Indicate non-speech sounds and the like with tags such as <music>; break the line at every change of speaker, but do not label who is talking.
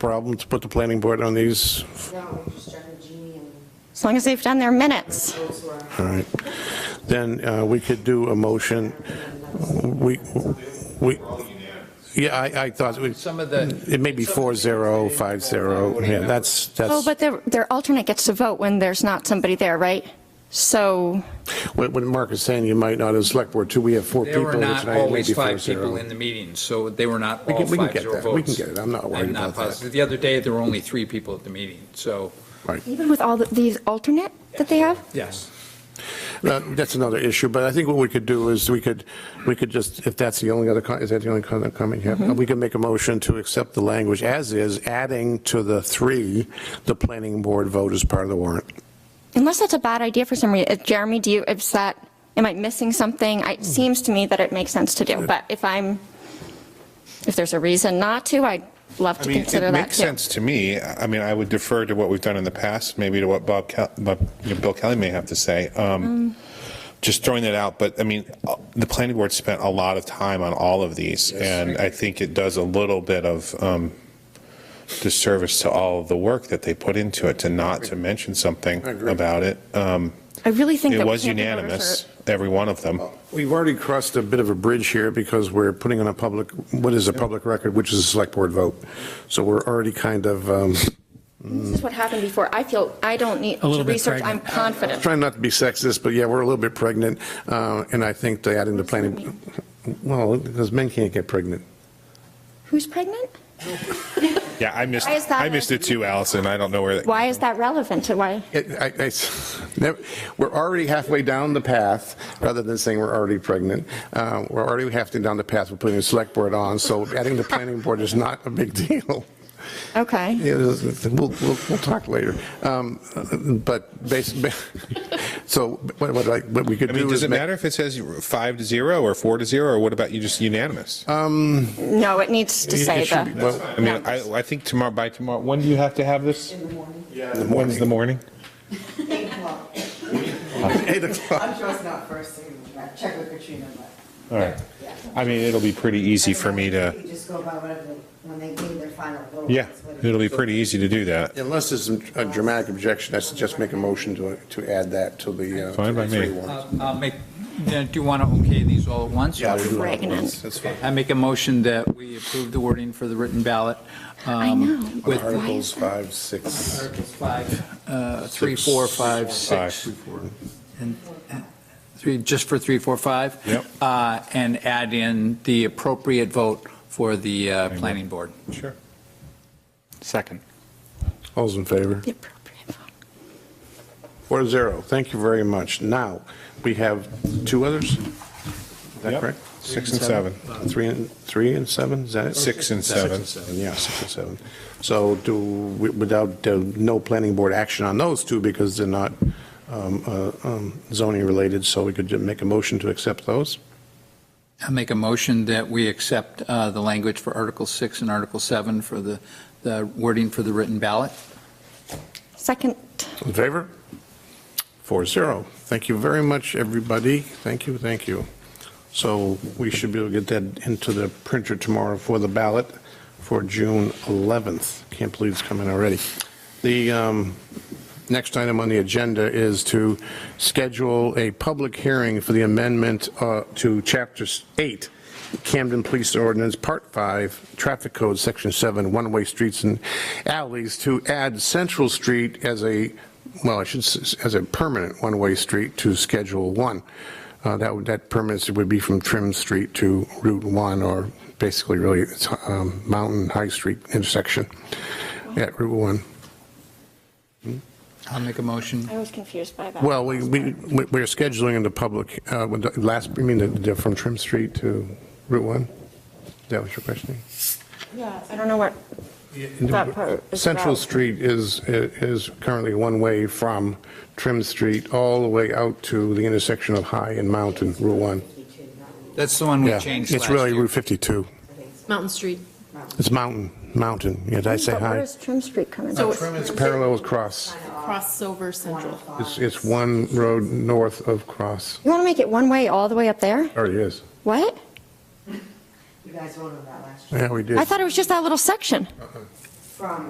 problem to put the planning board on these?
No, we just started Jeannie
<laughs>
and
As long as they've done their minutes.
those who are.
All right. Then uh, we could do a motion, we, we, yeah, I, I thought, we-
Some of the.
it may be four zero, five zero, yeah, that's,
Oh,
that's,
but their, their alternate gets to vote when there's not somebody there, right? So,
what what Mark is saying, you might not, as select board too, we have four
There
people
were
tonight,
not
it may
always
be four
five people
zero.
in the meeting, so they were not
We
all
can- we can
five
get
zero
that. We can
votes.
get it. I'm not worried
I'm not
about that.
positive. The other day, there were only three people at the meeting, so,
Right.
even with all the- these alternate that they have?
yes.
Uh, That's another issue, but I think what we could do is we could, we could just, if that's the only other, co- is that the only co- comment you have? We could make a motion to accept the language as is, adding to the three, the planning board vote as part of the warrant.
Unless that's a bad idea for some reason. Jeremy, do you, is that, am I missing something?
Hmm.
I- It seems to me that it makes sense to do, but if I'm, if there's a reason not to, I'd love
I
to
mean,
consider
it
that
makes
too.
sense to me. I I mean, I would defer to what we've done in the past, maybe to what Bob, Kel- Bob- you know, Bill Kelly may have to say.
Mm.
Um, Just throwing that out, but I mean, uh, the planning board spent a lot of time on all of these, and I think it does a little bit of um, disservice to all of the work that they put into it to not to mention something
agree.
about it. Um,
I really think that.
It
we
was
can't get over
unanimous,
for-
every one of them.
We've already crossed a bit of a bridge here because we're putting on a public, what is a public record, which is a select board vote. So we're already kind of, um, <laughs>
This is what
Hmm.
happened before. I feel, I don't need
A
to
little bit
research. I'm
pregnant.
confident.
trying not to be sexist, but yeah, we're a little bit pregnant. uh, And I think they adding the planning, well, because men can't get pregnant.
Who's pregnant?
Yeah, I missed,
Why is that
I missed it too, Allison. I don't know where that.
Why is that relevant to why?
It- I- I s- <laughs> never- We're already halfway down the path, rather than saying we're already pregnant. Uh, We're already halfway down the path, we're putting the select board on, so adding the planning board is not a big <laughs> deal.
Okay.
It is- We'll, we'll, we'll talk later. Um, But basically, <laughs> so what, what I- what we could
I
do is.
mean, does it
make-
matter if it says five to zero or four to zero, or what about you just unanimous?
No, it needs
um,
to
It- it
say
should be-
the,
well,
I mean, I, I think tomorrow, by tomorrow, when do you have to have this? In
<laughs>
the morning. When's the morning?
Well,
<laughs> Eight o'clock.
I'm sure it's not first thing, I'll check with Katrina, but.
All right. I mean, it'll be pretty easy for me
You
to,
just go by whatever, they- when they give their final vote.
yeah,
that's what it
it'll be
is.
pretty easy to do that.
Unless there's a dramatic objection, I suggest make a motion to, to add that to the. uh,
Fine by me.
three warrants.
Uh, I'll make, do you want to okay these all at once?
Yeah, we do that
Pregnant.
once, that's fine.
I make a motion that we approve the wording for the written ballot. um,
I
Um,
know.
With
Articles five, six.
Articles five, uh, three, four, five, six. And uh, three, just for three, four, five.
Yep.
Uh, And add in the appropriate vote for the uh, planning board.
Sure.
Second.
All's in favor?
the appropriate vote.
Four to zero. Thank you very much. Now, we have two others? Is that
Yep.
correct?
Six and seven.
Three and, three and seven, is that it?
Six and seven.
Yeah, six and seven. So do, without, uh, no planning board action on those two because they're not um, uh, um, zoning related, so we could ju- make a motion to accept those?
I make a motion that we accept uh, the language for Article 6 and Article 7 for the the wording for the written ballot.
Second,
In favor? Four zero. Thank you very much, everybody. Thank you, thank you. So we should be able to get that into the printer tomorrow for the ballot for June 11th. Can't believe it's coming already. The um, next item on the agenda is to schedule a public hearing for the amendment uh, to Chapter 8, Camden Police Ordinance, Part 5, Traffic Code, Section 7, One-Way Streets and Alleys, to add Central Street as a, well, I should, s- as a permanent one-way street to Schedule 1. Uh, That, would- that permanency would be from Trim Street to Route 1, or basically really it's um, Mountain High Street intersection at Route 1.
I'll make a motion.
I was confused by that.
Well, we, we, we're scheduling in the public, uh, with the last, you mean the- the, from Trim Street to Route 1? That was your question?
Yeah, I don't know what that part is
Central
about.
Street is, is currently one-way from Trim Street all the way out to the intersection of High and Mountain, Route 1.
That's the one we
Yeah,
changed
It's
last
really
year.
Route 52.
Mountain Street.
It's Mountain, Mountain. Yeah, did I say
But where
High?
does Trim Street come in?
So
It's parallel with Cross.
crossover central.
It's, it's one road north of Cross.
You want to make it one way all the way up there?
Already is.
What?
You guys voted on that last year.
Yeah, we did.
I thought it was just that little section.
from